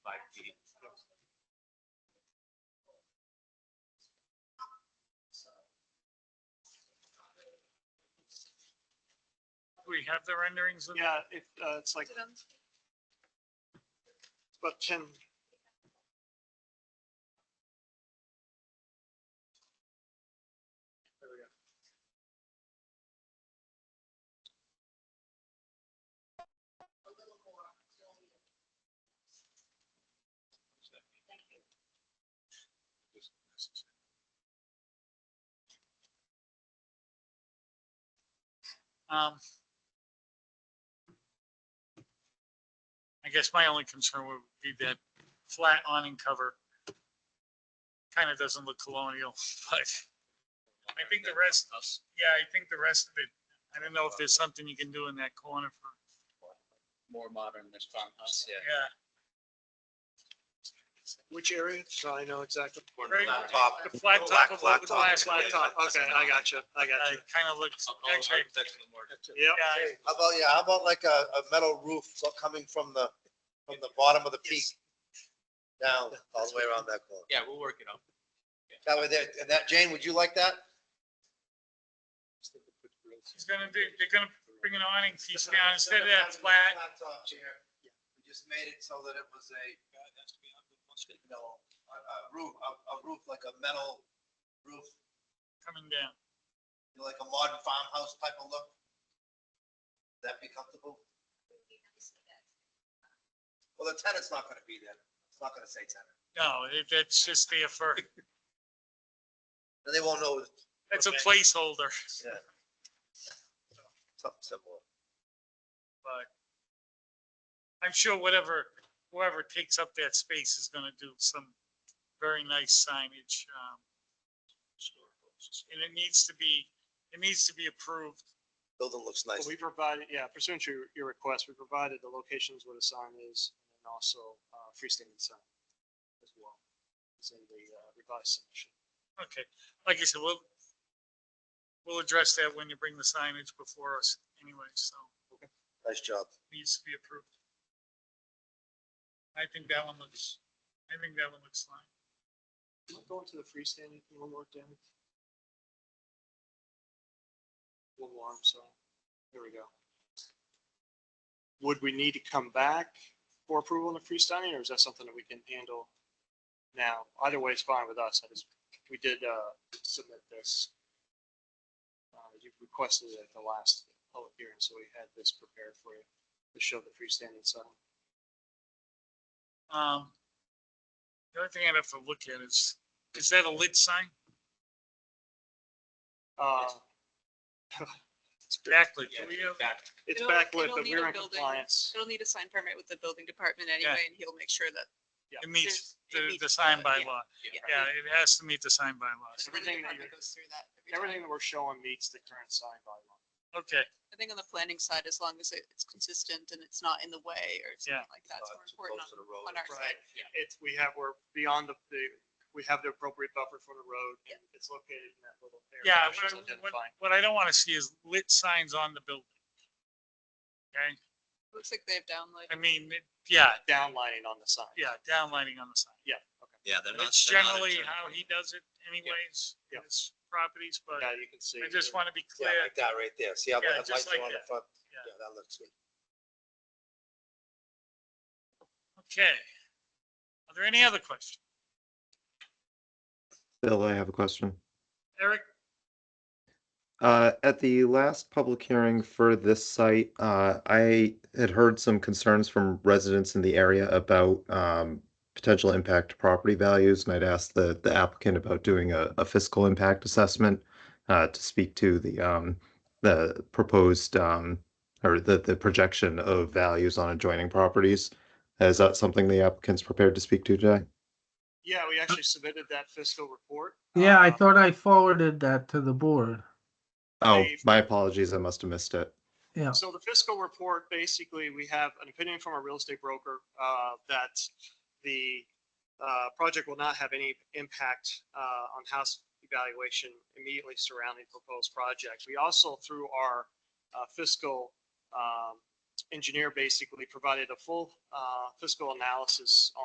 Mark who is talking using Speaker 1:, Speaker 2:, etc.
Speaker 1: we have the renderings of
Speaker 2: Yeah, it, uh, it's like about ten. There we go.
Speaker 1: Um. I guess my only concern would be that flat awning cover kind of doesn't look colonial, but I think the rest, yeah, I think the rest of it, I don't know if there's something you can do in that corner for,
Speaker 3: More modern this farmhouse, yeah.
Speaker 1: yeah.
Speaker 2: Which area? So I know exactly.
Speaker 1: Right.
Speaker 4: Flat top.
Speaker 1: The flat top of what was
Speaker 4: Laptop.
Speaker 1: last
Speaker 2: Flat top.
Speaker 1: laptop,
Speaker 2: Okay, I got you. I got you.
Speaker 1: it kind of looks, actually,
Speaker 2: Yep.
Speaker 1: yeah,
Speaker 4: How about, yeah, how about like a, a metal roof so- coming from the, from the bottom of the peak down, all the way around that corner?
Speaker 3: Yeah, we'll work it out.
Speaker 4: That way there, and that, Jane, would you like that?
Speaker 1: he's gonna do, they're gonna bring an awning piece down instead of that flat.
Speaker 4: top chair, we just made it so that it was a, you know, a, a roof, a, a roof like a metal roof,
Speaker 1: coming down.
Speaker 4: you know, like a modern farmhouse type of look. That be comfortable? Well, the tenant's not gonna be there. It's not gonna say tenant.
Speaker 1: No, it- it's just there for,
Speaker 4: And they won't know it's
Speaker 1: it's a placeholder,
Speaker 4: something similar.
Speaker 1: but I'm sure whatever, whoever takes up that space is gonna do some very nice signage. um, And it needs to be, it needs to be approved.
Speaker 4: Building looks nice.
Speaker 2: Well, We provided, yeah, pursuant to your- your request, we provided the locations where the sign is and also uh, freestanding sign as well. It's in the uh, revised submission.
Speaker 1: Okay, like I said, we'll, we'll address that when you bring the signage before us anyway, so
Speaker 4: Nice job.
Speaker 1: it needs to be approved. I think that one looks, I think that one looks fine.
Speaker 2: Am I Going to the freestanding thing one more time. One more, I'm sorry. There we go. Would we need to come back for approval on the freestanding or is that something that we can handle now? Either way, it's fine with us. I just, we did uh, submit this. Uh, You requested it at the last public hearing, so we had this prepared for you to show the freestanding sign.
Speaker 1: Um, the other thing I'd have to look at is, is that a lit sign?
Speaker 2: Uh,
Speaker 1: Exactly. Do we have-
Speaker 2: It's
Speaker 5: It'll-
Speaker 2: backlit, but
Speaker 5: it'll need
Speaker 2: we're in
Speaker 5: a building.
Speaker 2: compliance.
Speaker 5: It'll need a sign permit with the building department anyway, and he'll make sure that.
Speaker 1: It meets
Speaker 5: there's- it
Speaker 1: the, the
Speaker 5: meets
Speaker 1: sign
Speaker 5: the-
Speaker 1: by
Speaker 5: yeah,
Speaker 1: law.
Speaker 5: yeah.
Speaker 1: Yeah, it has to meet the sign by laws.
Speaker 5: The building
Speaker 2: everything that
Speaker 5: department
Speaker 2: you're-
Speaker 5: goes through that every time.
Speaker 2: Everything that we're showing meets the current sign bylaw.
Speaker 1: Okay,
Speaker 5: I think on the planning side, as long as it- it's consistent and it's not in the way or
Speaker 1: Yeah.
Speaker 5: something like that,
Speaker 4: Uh,
Speaker 5: it's more important on, on our
Speaker 2: Right.
Speaker 5: side.
Speaker 2: It's, we have, we're beyond the, the, we have the appropriate buffer for the road. and It's located in that little area.
Speaker 1: yeah,
Speaker 2: that
Speaker 1: what,
Speaker 2: she's
Speaker 1: I- what,
Speaker 2: identifying.
Speaker 1: what I don't want to see is lit signs on the building. Okay,
Speaker 5: Looks like they've downloaded.
Speaker 1: I mean, it- yeah,
Speaker 2: Downlining on the sign.
Speaker 1: yeah, downlighting on the sign.
Speaker 2: Yeah, okay.
Speaker 6: Yeah, they're not.
Speaker 1: It's
Speaker 6: they're not
Speaker 1: generally
Speaker 6: internal.
Speaker 1: how he does it anyways,
Speaker 2: Yeah.
Speaker 1: his properties, but
Speaker 2: Yeah, you can see.
Speaker 1: I just want to be
Speaker 4: Yeah,
Speaker 1: clear.
Speaker 4: like that right there. See how
Speaker 1: Yeah,
Speaker 4: that
Speaker 1: just
Speaker 4: lights are
Speaker 1: like
Speaker 4: on the
Speaker 1: that.
Speaker 4: front?
Speaker 1: Yeah.
Speaker 4: Yeah, that looks good.
Speaker 1: Okay. Are there any other questions?
Speaker 7: Bill, I have a question.
Speaker 1: Eric,
Speaker 7: Uh, At the last public hearing for this site, uh, I had heard some concerns from residents in the area about um, potential impact to property values, and I'd asked the the applicant about doing a a fiscal impact assessment uh, to speak to the um, the proposed um, or the the projection of values on adjoining properties. Is that something the applicant's prepared to speak to today?
Speaker 2: Yeah, we actually submitted that fiscal report.
Speaker 8: Yeah, I
Speaker 1: Um,
Speaker 2: Uh,
Speaker 8: thought I forwarded that to the board.
Speaker 7: Oh,
Speaker 2: I-
Speaker 7: my apologies, I must have missed it.
Speaker 8: Yeah.
Speaker 2: So the fiscal report, basically, we have an opinion from a real estate broker uh, that the uh, project will not have any impact uh, on house evaluation immediately surrounding proposed project. We also, through our uh, fiscal um, engineer, basically provided a full uh, fiscal analysis